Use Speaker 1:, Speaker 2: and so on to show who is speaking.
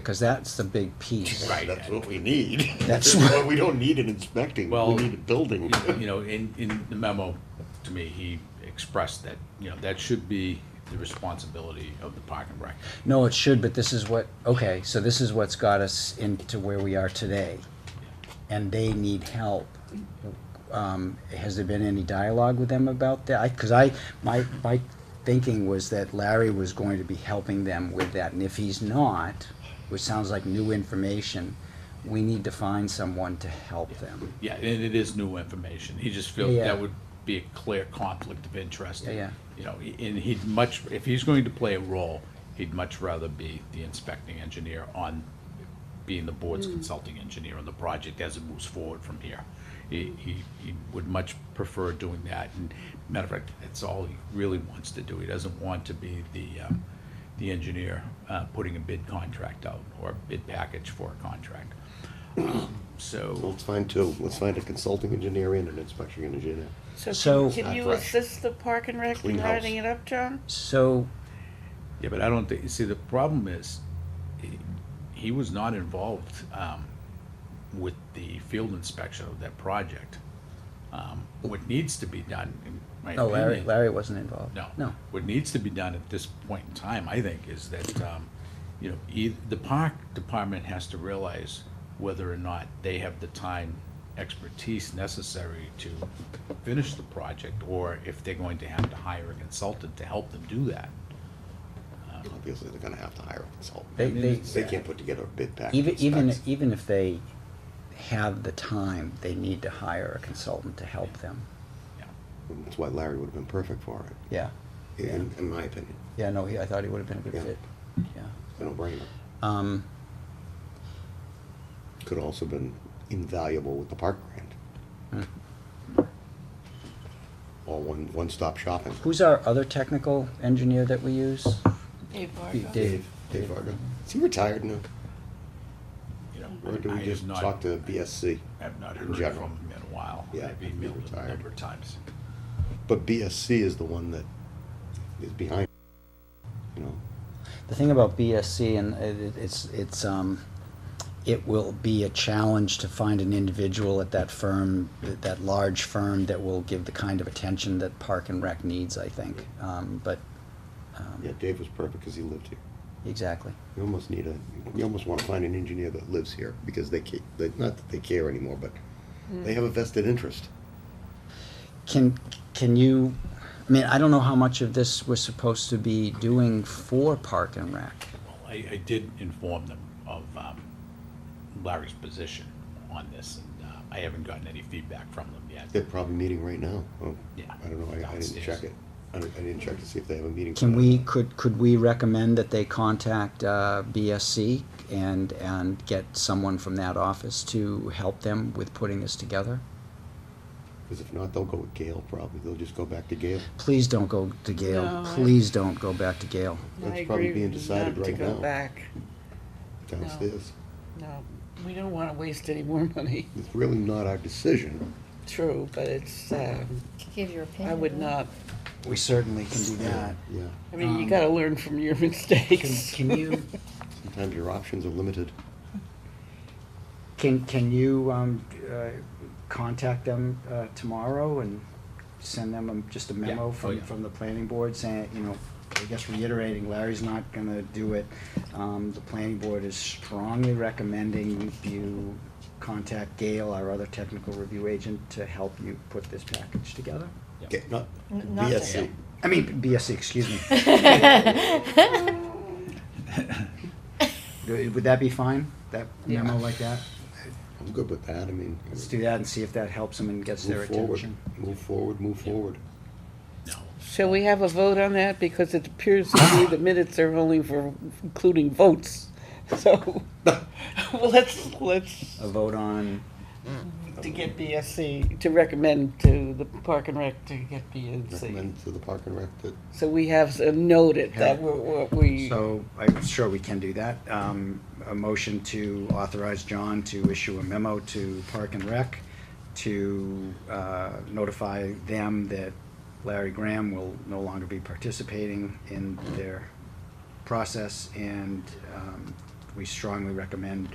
Speaker 1: because that's the big piece.
Speaker 2: Right.
Speaker 3: That's what we need.
Speaker 1: That's
Speaker 3: what. We don't need an inspecting, we
Speaker 2: Well,
Speaker 3: need a building.
Speaker 2: You know, in, in the memo to me, he expressed that, you know, that should be the responsibility of the park and rec.
Speaker 1: No, it should, but this is what, okay, so this is what's got us into where we are today. And they need help. Um, has there been any dialogue with them about that? I, cause I, my, my thinking was that Larry was going to be helping them with that, and if he's not, which sounds like new information, we need to find someone to help them.
Speaker 2: Yeah, and it is new information. He just feels
Speaker 1: Yeah.
Speaker 2: that would be a clear conflict of interest.
Speaker 1: Yeah, yeah.
Speaker 2: You know, and he'd much, if he's going to play a role, he'd much rather be the inspecting engineer on, being the board's
Speaker 1: Mm.
Speaker 2: consulting engineer on the project as it moves forward from here. He, he, he would much prefer doing that, and matter of fact, that's all he really wants to do. He doesn't want to be the, um, the engineer, uh, putting a bid contract out, or a bid package for a contract. Um, So.
Speaker 3: Let's find two, let's find a consulting engineer and an inspection engineer.
Speaker 1: So-
Speaker 4: So can-
Speaker 3: Not
Speaker 4: can you
Speaker 3: fresh.
Speaker 4: assist the park and rec
Speaker 3: Clean
Speaker 4: in
Speaker 3: house.
Speaker 4: writing it up, John?
Speaker 1: So,
Speaker 2: Yeah, but I don't think, see, the problem is, he- he was not involved um, with the field inspection of that project. Um, What needs to be done, in my
Speaker 1: no, Oh, Larry,
Speaker 2: opinion.
Speaker 1: Larry wasn't involved.
Speaker 2: No.
Speaker 1: No,
Speaker 2: What needs to be done at this point in time, I think, is that, um, you know, eith- the park department has to realize whether or not they have the time expertise necessary to finish the project, or if they're going to have to hire a consultant to help them do that.
Speaker 3: Obviously, they're gonna have to hire a consultant.
Speaker 1: they, they.
Speaker 3: They can't put together a bid package.
Speaker 1: Even, even,
Speaker 3: specs.
Speaker 1: even if they have the time, they need to hire a consultant to help them.
Speaker 2: Yeah.
Speaker 3: That's why Larry would've been perfect for it,
Speaker 1: Yeah,
Speaker 3: in, in my opinion,
Speaker 1: yeah, no, he, I thought he would have been a
Speaker 3: Yeah.
Speaker 1: good fit, yeah.
Speaker 3: I don't blame him.
Speaker 1: Um,
Speaker 3: Could also been invaluable with the park grant.
Speaker 1: Hmm.
Speaker 3: Or one, one-stop shopping.
Speaker 1: who's our other technical engineer that we use?
Speaker 4: Dave
Speaker 1: Dave.
Speaker 4: Varga.
Speaker 3: Dave, Dave Varga. Is he retired now?
Speaker 2: You know,
Speaker 3: Or do
Speaker 2: I
Speaker 3: we
Speaker 2: have
Speaker 3: just
Speaker 2: not-
Speaker 3: talk to BSC?
Speaker 2: I've not
Speaker 3: in
Speaker 2: heard
Speaker 3: general?
Speaker 2: from him in a while.
Speaker 3: Yeah,
Speaker 2: I've
Speaker 3: he
Speaker 2: emailed him a
Speaker 3: retired.
Speaker 2: number of times.
Speaker 3: But BSC is the one that is behind, you know,
Speaker 1: The thing about BSC and uh, it, it's, it's, um, it will be a challenge to find an individual at that firm, that, that large firm that will give the kind of attention that Park and Rec needs, I think. Um, but,
Speaker 2: Um,
Speaker 3: yeah, Dave was perfect because he lived here.
Speaker 1: exactly.
Speaker 3: You almost need a, you almost want to find an engineer that lives here because they, ca- they not that they care anymore, but
Speaker 2: Mm.
Speaker 3: they have a vested interest.
Speaker 1: Can, can you, I mean, I don't know how much of this we're supposed to be doing for Park and Rec.
Speaker 2: Well, I, I did inform them of um, Larry's position on this, and uh, I haven't gotten any feedback from them yet.
Speaker 3: They're probably meeting right now. Oh,
Speaker 2: Yeah,
Speaker 3: I don't know, I, I didn't
Speaker 2: downstairs.
Speaker 3: check it. I didn't, I didn't check to see if they have a meeting.
Speaker 1: Can
Speaker 3: tonight.
Speaker 1: we, could, could we recommend that they contact uh, BSC and, and get someone from that office to help them with putting this together?
Speaker 3: Because if not, they'll go with Gail probably. They'll just go back to Gail.
Speaker 1: Please don't go to Gail.
Speaker 4: No, I-
Speaker 1: Please don't go back to Gail.
Speaker 3: That's
Speaker 4: I
Speaker 3: probably
Speaker 4: agree
Speaker 3: being decided
Speaker 4: not to
Speaker 3: right
Speaker 4: go
Speaker 3: now.
Speaker 4: back.
Speaker 3: downstairs.
Speaker 4: No, we don't want to waste any more money.
Speaker 3: It's really not our decision.
Speaker 4: True, but it's, um,
Speaker 5: Give your opinion.
Speaker 4: I would
Speaker 5: right?
Speaker 4: not,
Speaker 1: We certainly can do
Speaker 2: Uh,
Speaker 3: Yeah,
Speaker 4: I mean, you
Speaker 1: Um,
Speaker 4: gotta learn from your
Speaker 1: Can,
Speaker 4: mistakes.
Speaker 1: can you,
Speaker 3: sometimes your options are limited.
Speaker 1: can, can you, um, uh, contact them, uh, tomorrow and send them a- just a
Speaker 2: Yeah.
Speaker 1: memo
Speaker 2: Oh,
Speaker 1: from,
Speaker 2: yeah.
Speaker 1: from the planning board saying, you know, I guess reiterating, Larry's not gonna do it. Um, the planning board is strongly recommending you contact Gail, our other technical review agent, to help you put this package together.
Speaker 3: Ga- Not,
Speaker 5: N- not
Speaker 3: BSC.
Speaker 1: I mean, BSC, excuse me. Would would that be fine? That memo like that?
Speaker 3: I'm good with that. I mean.
Speaker 1: Let's do that and see if that helps them and gets their
Speaker 3: Move forward.
Speaker 1: attention.
Speaker 3: Move forward, move forward.
Speaker 4: Shall we have a vote on that? Because it appears to me the minutes are only for including votes. So, well, let's, let's,
Speaker 3: Um,
Speaker 1: A vote on,
Speaker 4: to get BSC, to recommend to the park and rec to get BSC.
Speaker 3: Recommend to the park and rec that
Speaker 4: So we have uh, noted that
Speaker 1: Yeah.
Speaker 4: we're, we're- we.
Speaker 1: so I'm sure we can do that. Um, a motion to authorize John to issue a memo to Park and Rec to, uh, notify them that Larry Graham will no longer be participating in their process and, um, we strongly recommend